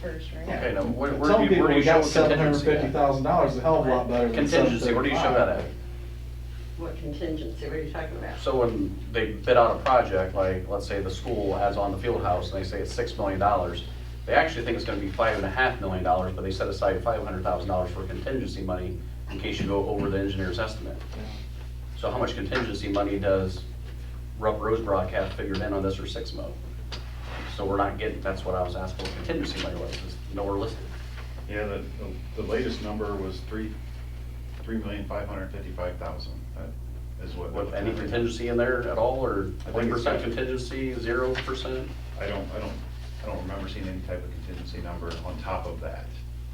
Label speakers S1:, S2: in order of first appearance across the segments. S1: first, right?
S2: Okay, now, where, where
S3: Some
S2: do you,
S3: people,
S2: where do you
S3: we
S2: show
S3: got seven hundred and
S2: contingency
S3: fifty
S2: at?
S3: thousand dollars, a hell of a lot better than
S2: Contingency, where do you show that at?
S3: 735.
S4: What contingency, what are you talking about?
S2: So when they bid out a project, like, let's say the school has on the field house, and they say it's six million dollars, they actually think it's gonna be five and a half million dollars, but they set aside five hundred thousand dollars for contingency money in case you go over the engineer's estimate. So how much contingency money does Rough Rose Broadcast figured in on this or six mo? So we're not getting, that's what I was asking, what contingency money was, is nowhere listed.
S5: Yeah, the, the- the latest number was three, three million five hundred fifty-five thousand. That is what.
S2: With any contingency in there at all, or
S5: I
S2: one
S5: think it's
S2: percent
S5: got-
S2: contingency, zero percent?
S5: I don't, I don't, I don't remember seeing any type of contingency number on top of that.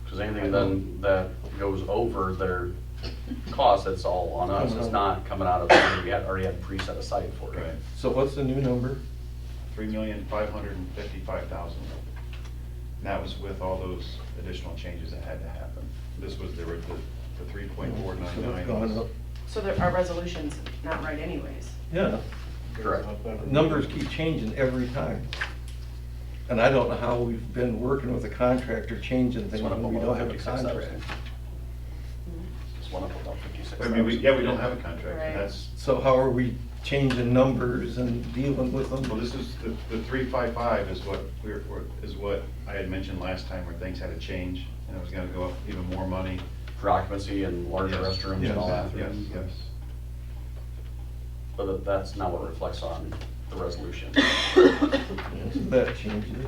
S2: Because anything then that goes over their cost, that's all on us,
S5: Uh-huh.
S2: it's not coming out of, we had, already had pre set aside for it.
S3: So what's the new number?
S5: Three million five hundred and fifty-five thousand. And that was with all those additional changes that had to happen. This was, there were the, the three point four nine
S3: So it's
S5: nine.
S3: gone up.
S6: So there, our resolution's not right anyways.
S3: Yeah,
S2: Correct.
S3: numbers keep changing every time. And I don't know how we've been working with a contractor changing
S2: It's
S3: things
S2: one up
S3: when we
S2: about
S3: don't have a
S2: 56,000.
S3: contract.
S2: It's one up about fifty-six
S5: I
S2: thousand.
S5: mean, we, yeah, we don't have a contract,
S6: Right.
S5: and that's,
S3: So how are we changing numbers and dealing with them?
S5: Well, this is, the, the three five five is what we're, we're- is what I had mentioned last time where things had to change and it was gonna go up even more money.
S2: For occupancy and larger
S5: Yes.
S2: restrooms and all
S5: Yes,
S2: that.
S5: Yes, yes.
S2: But that- that's not what reflects on the resolution.
S3: So That changes.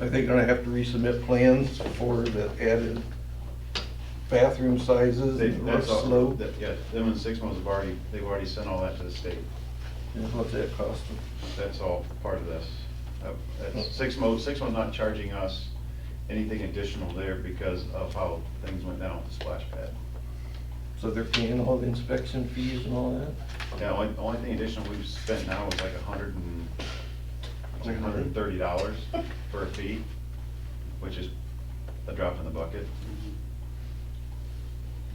S3: Are they gonna have to resubmit plans for the added bathroom sizes
S5: They-
S3: and roof
S5: That's all,
S3: slope?
S5: that- yeah, them and six months have already, they've already sent all that to the state.
S3: And what's that cost them?
S5: That's all part of this. Uh, That's, six mo, six months not charging us anything additional there because of how things went down with the splash pad.
S3: So they're paying all the inspection fees and all that?
S5: Yeah, only, only thing additional we've spent now is like a hundred and, like a hundred and thirty dollars for a fee, which is a drop in the bucket.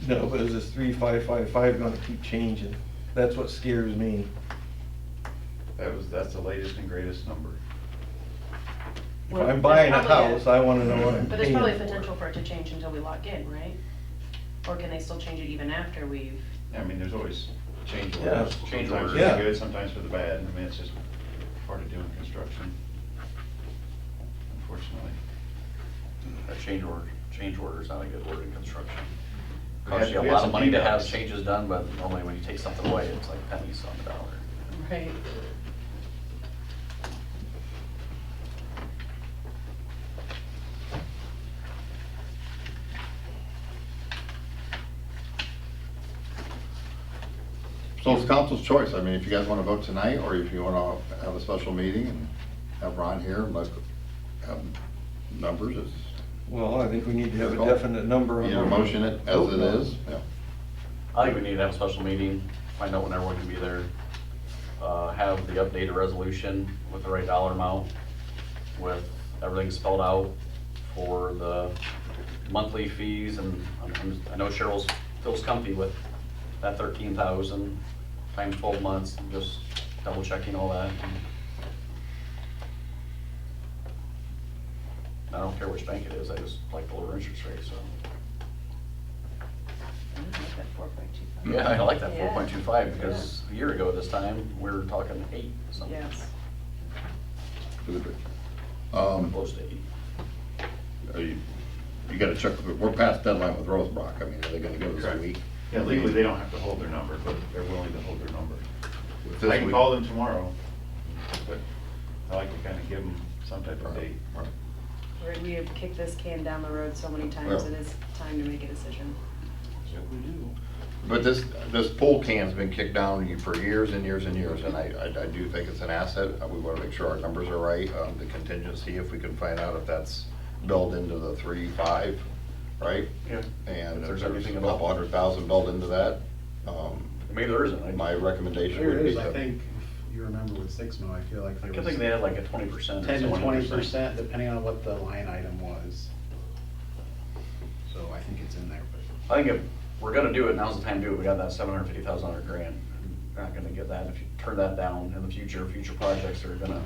S3: No, but is this three, five, five, five gonna keep changing? That's what scares me.
S5: That was, that's the latest and greatest number.
S3: If I'm buying a house, I wanna know what I'm
S6: But there's
S3: paying
S6: probably
S3: for.
S6: potential for it to change until we lock in, right? Or can they still change it even after we've?
S5: I mean, there's always change
S3: Yeah.
S5: orders,
S2: Change
S5: change orders
S3: orders.
S5: for the good, sometimes for the bad, I mean, it's just part of doing construction. Unfortunately.
S2: A change order, change order is not a good word in construction.
S5: We had-
S2: Costs you a
S5: we had
S2: lot
S5: some
S2: of money to have
S5: cleanups.
S2: changes done, but normally when you take something away, it's like pennies on the dollar.
S6: Right.
S7: So it's council's choice. I mean, if you guys want to vote tonight, or if you want to have a special meeting and have Ron here and let, have numbers, it's,
S3: Well, I think we need to have a definite number on.
S7: you know, motion it as it is. Yeah.
S2: I think we need to have a special meeting, find out when everyone can be there, uh, have the updated resolution with the right dollar amount, with everything spelled out for the monthly fees, and I'm- I'm- I know Cheryl's, feels comfy with that thirteen thousand times twelve months, and just double checking all that. I don't care which bank it is, I just like the lower interest rate, so. Yeah, I like that
S6: Yeah.
S2: four point two five, because a year ago this time, we were talking eight, something,
S6: Yes.
S7: Um,
S2: close to eight.
S7: are you, you gotta check, we're past deadline with Rosebrock. I mean, are they gonna go this
S5: Correct.
S7: week?
S5: Yeah, legally, they don't have to hold their number, but they're willing to hold their number.
S7: With this
S5: I can
S7: week?
S5: call them tomorrow, but I like to kind of give them some type of date.
S7: Right.
S6: Right, We have kicked this can down the road so many times,
S7: Yeah.
S6: it is time to make a decision.
S7: But this, this pool can's been kicked down for years and years and years, and I, I- I do think it's an asset. Uh, We wanna make sure our numbers are right, um, the contingency, if we can find out if that's built into the three, five, right?
S2: Yeah.
S7: And
S2: If
S7: if
S2: there's
S7: there's
S2: anything
S7: a
S2: about-
S7: couple hundred thousand built into that, um,
S2: Maybe there isn't, I
S7: my recommendation
S8: There
S7: would
S8: it
S7: be
S8: is, I
S7: to.
S8: think, if you remember with Sixmo, I feel like
S2: I
S8: there
S2: could
S8: was
S2: think they had like a twenty percent.
S8: ten to twenty percent, depending on what the line item was. So I think it's in there, but
S2: I think if we're gonna do it, now's the time to do it, we got that seven hundred fifty thousand dollar grant, we're not gonna get that, if you turn that down in the future, future projects are gonna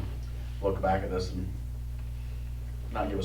S2: look back at this and not give us